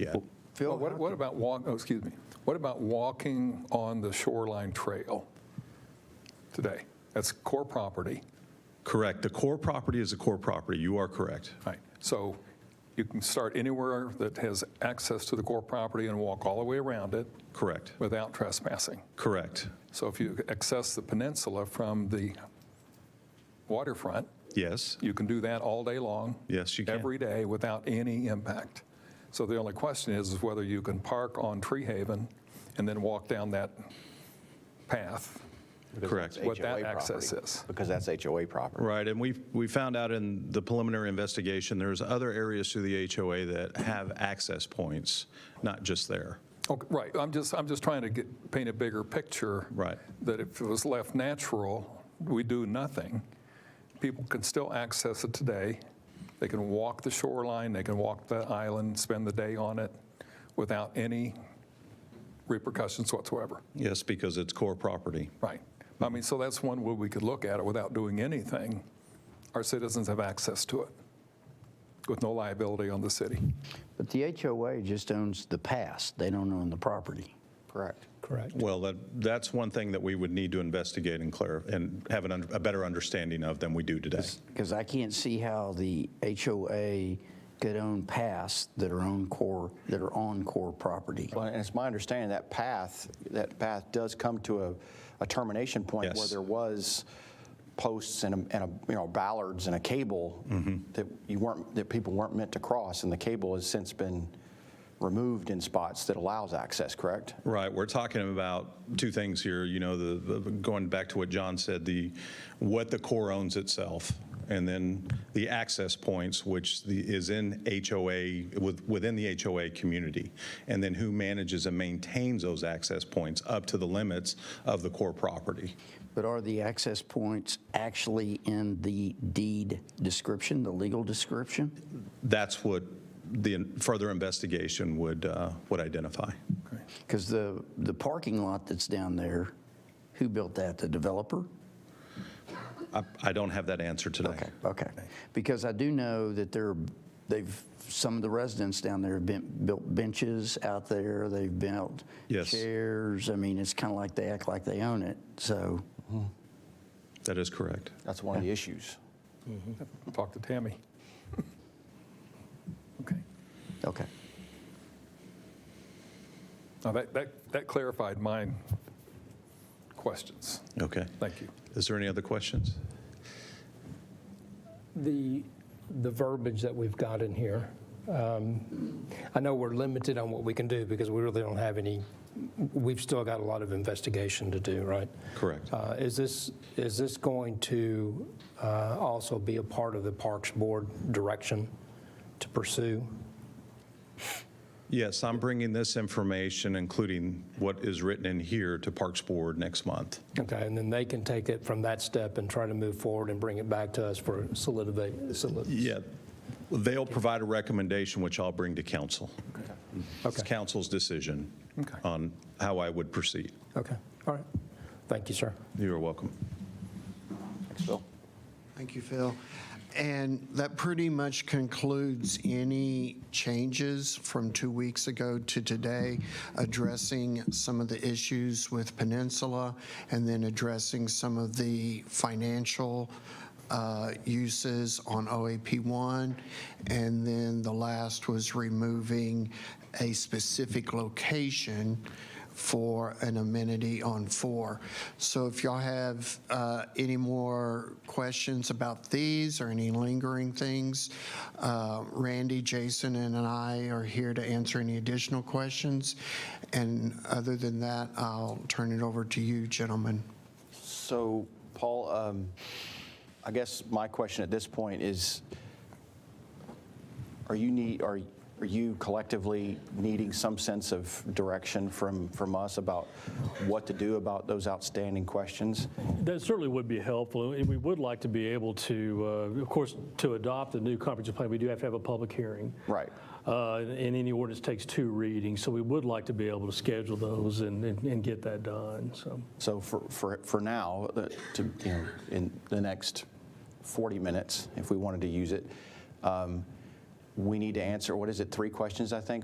Yeah. Phil, What, what about walk, oh, excuse me, what about walking on the shoreline trail today? That's core property, Correct. The core property is a core property. You are correct. right? So you can start anywhere that has access to the core property and walk all the way around it Correct. without trespassing. Correct. So if you access the peninsula from the waterfront, Yes. you can do that all day long. Yes, you can. Every day without any impact. So the only question is, is whether you can park on Tree Haven and then walk down that path. Correct. what that HOA access property, is. Because that's HOA property. Right, and we we found out in the preliminary investigation, there's other areas through the HOA that have access points, not just there. Okay, right, I'm just, I'm just trying to get, paint a bigger picture. Right. That if it was left natural, we do nothing, people can still access it today. They can walk the shoreline, they can walk the island, spend the day on it without any repercussions whatsoever. Yes, because it's core property. Right. I mean, so that's one way we could look at it without doing anything. Our citizens have access to it with no liability on the city. But the HOA just owns the past, they don't own the property. Correct. Correct. Well, that that's one thing that we would need to investigate and clarify and have an, un- a better understanding of than we do today. Because I can't see how the HOA could own past that are on core, that are on core property. Well, and it's my understanding that path, that path does come to a, a termination point where Yes. there was posts and a, and a, you know, ballards and a cable Mm-hmm. that you weren't, that people weren't meant to cross, and the cable has since been removed in spots that allows access, correct? Right, we're talking about two things here, you know, the, the- going back to what John said, the, what the core owns itself, and then the access points, which the- is in HOA, with- within the HOA community, and then who manages and maintains those access points up to the limits of the core property. But are the access points actually in the deed description, the legal description? That's what the further investigation would, uh, would identify. Because the, the parking lot that's down there, who built that, the developer? I- I don't have that answer today. Okay, okay. Because I do know that there, they've, some of the residents down there have been, built benches out there, they've built Yes. chairs. I mean, it's kind of like they act like they own it, so. That is correct. That's one of the issues. Talk to Tammy. Okay. Okay. Now, that, that, that clarified my questions. Okay. Thank you. Is there any other questions? The, the verbiage that we've got in here, um, I know we're limited on what we can do because we really don't have any, we've still got a lot of investigation to do, right? Correct. Uh, Is this, is this going to uh, also be a part of the Parks Board direction to pursue? Yes, I'm bringing this information, including what is written in here, to Parks Board next month. Okay, and then they can take it from that step and try to move forward and bring it back to us for solidify. solid- Yeah. They'll provide a recommendation, which I'll bring to council. It's council's decision Okay. on how I would proceed. Okay, all right. Thank you, sir. You are welcome. Thanks, Phil. Thank you, Phil. And that pretty much concludes any changes from two weeks ago to today, addressing some of the issues with Peninsula, and then addressing some of the financial uh, uses on OAP1. And then the last was removing a specific location for an amenity on four. So if y'all have uh, any more questions about these or any lingering things, uh, Randy, Jason, and I are here to answer any additional questions. And other than that, I'll turn it over to you, gentlemen. So, Paul, um, I guess my question at this point is, are you need, are, are you collectively needing some sense of direction from, from us about what to do about those outstanding questions? That certainly would be helpful, and we would like to be able to, uh, of course, to adopt the new comprehensive plan, we do have to have a public hearing. Right. Uh, And any ordinance takes two readings, so we would like to be able to schedule those and, and and get that done, so. So for, for, for now, uh, to, you know, in the next 40 minutes, if we wanted to use it, um, we need to answer, what is it, three questions, I think,